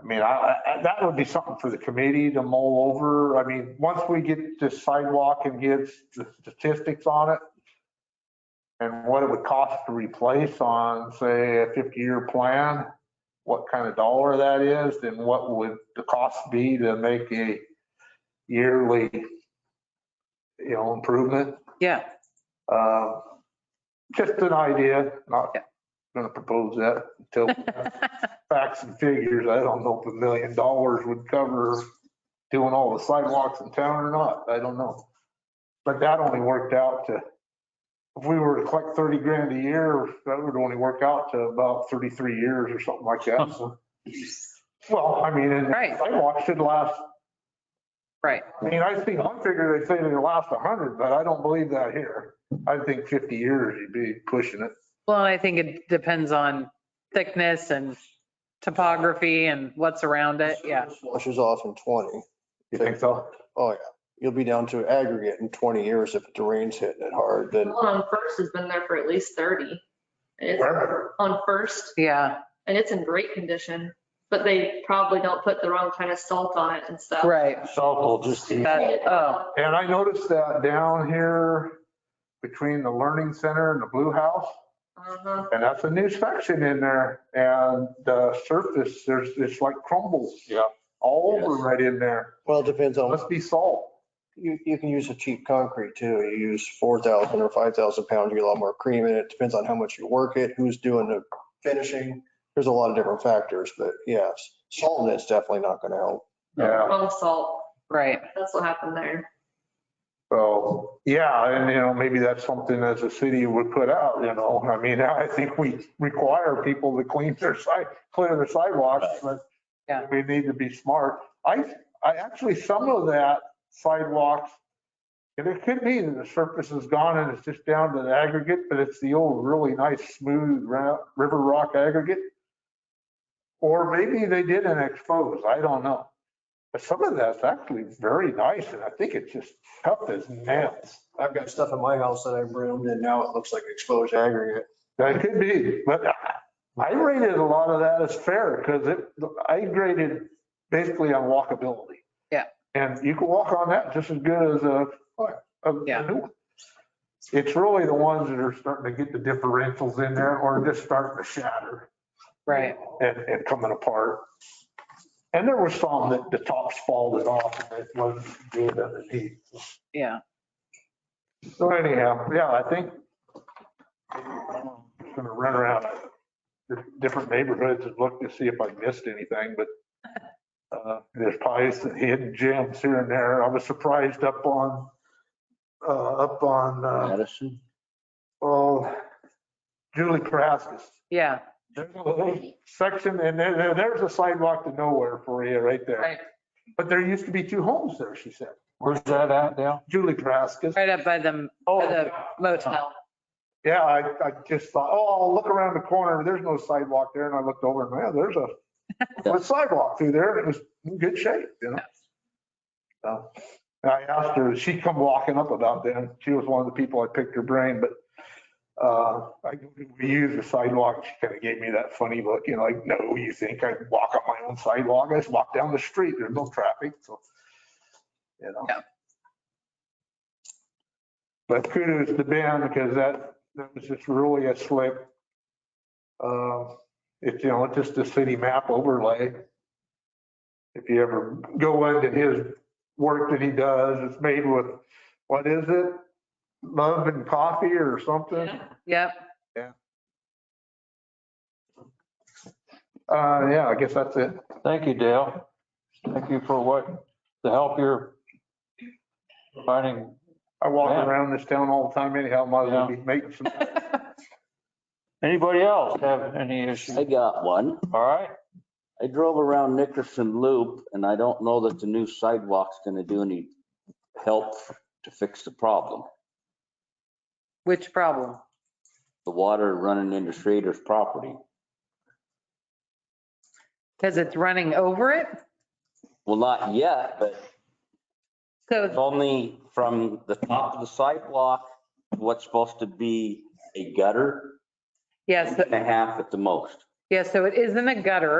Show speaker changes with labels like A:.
A: I mean, I, I, that would be something for the committee to mull over. I mean, once we get this sidewalk and get the statistics on it and what it would cost to replace on, say, a 50-year plan, what kind of dollar that is, then what would the cost be to make a yearly, you know, improvement?
B: Yeah,
A: Uh, Just an idea, not gonna propose that until facts and figures. I don't know if a million dollars would cover doing all the sidewalks in town or not. I don't know. But that only worked out to, if we were to collect 30 grand a year, that would only work out to about 33 years or something like that. So- Well, I mean, and
B: Right.
A: sidewalks should last
B: right.
A: I mean, I think one figure they say they last a hundred, but I don't believe that here. I think fifty years you'd be pushing it.
B: Well, I think it depends on thickness and topography and what's around it. Uh, Yeah,
C: Washes off in 20.
A: You think so?
C: Oh, yeah. You'll be down to aggregate in 20 years if the rain's hitting it hard, then
D: Well, on First has been there for at least 30. And it's
A: Where?
D: on First
B: yeah,
D: and it's in great condition, but they probably don't put the wrong kind of salt on it and stuff.
B: right.
A: Salt will just eat.
B: That- oh,
A: And I noticed that down here between the learning center and the blue house,
D: Uh-huh.
A: and that's a new section in there. And the surface, there's, it's like crumbles. Yeah. All over right in there.
C: Well, it depends on,
A: Must be salt.
C: you, you can use a cheap concrete too. You use 4,000 or 5,000 pounds, you get a lot more cream in it. Depends on how much you work it, who's doing the finishing. There's a lot of different factors, but yes, salt in it's definitely not going to help.
A: Yeah.
D: Wrong salt.
B: right.
D: That's what happened there.
A: So, yeah, and you know, maybe that's something as a city would put out, you know, I mean, I think we require people to clean their side, clear their sidewalks, but
B: Yeah.
A: we need to be smart. I, I actually, some of that sidewalks, and it could be that the surface is gone and it's just down to the aggregate, but it's the old really nice smooth ra- river rock aggregate. Or maybe they didn't expose, I don't know. But some of that's actually very nice and I think it's just tough as nails.
C: I've got stuff in my house that I broomed and now it looks like exposed aggregate.
A: That could be, but I rated a lot of that as fair because it, I graded basically on walkability.
B: Yeah.
A: And you can walk on that just as good as a, a
B: Yeah.
A: a new one. It's really the ones that are starting to get the differentials in there or just starting to shatter.
B: Right.
A: and, and coming apart. And there were some that the tops folded off and it wasn't good underneath.
B: Yeah.
A: So anyhow, yeah, I think I'm gonna run around the different neighborhoods and look to see if I missed anything, but uh, there's probably some hidden gems here and there. I was surprised up on, uh, up on, uh,
E: Madison.
A: oh, Julie Karaskis.
B: Yeah.
A: There's a little section and there, there- there's a sidewalk to nowhere for you right there.
B: Right.
A: But there used to be two homes there, she said.
E: Where's that at now?
A: Julie Kraskis.
B: Right up by the
A: Oh,
B: the motel.
A: yeah, I, I just thought, oh, I'll look around the corner. There's no sidewalk there. And I looked over and man, there's a, a sidewalk through there and it was in good shape, you know? So, and I asked her, she come walking up about that. and She was one of the people I picked her brain, but uh, I, we use the sidewalk. She kind of gave me that funny look, you know, like, no, you think I walk on my own sidewalk? I just walk down the street. There's no traffic. So, you know.
B: Yeah.
A: But kudos to Ben because that, that was just really a slip. Uh, It's, you know, it's just a city map overlay. If you ever go into his work that he does, it's made with, what is it? Love and coffee or something?
B: Yep.
A: Uh, yeah, I guess that's it.
E: Thank you, Dale. Thank you for what, the help you're finding.
A: I walk
E: Yeah.
A: around this town all the time anyhow, might as well be making some.
E: Anybody else have any issues?
F: I got one.
E: All right,
F: I drove around Nickerson Loop and I don't know that the new sidewalk's gonna do any help to fix the problem.
B: Which problem?
F: The water running into Schrader's property.
B: Because it's running over it.
F: Well, not yet, but it's
B: So,
F: only from the top of the sidewalk, what's supposed to be a gutter,
B: yes,
F: and a half at the most.
B: yeah, so it isn't a gutter.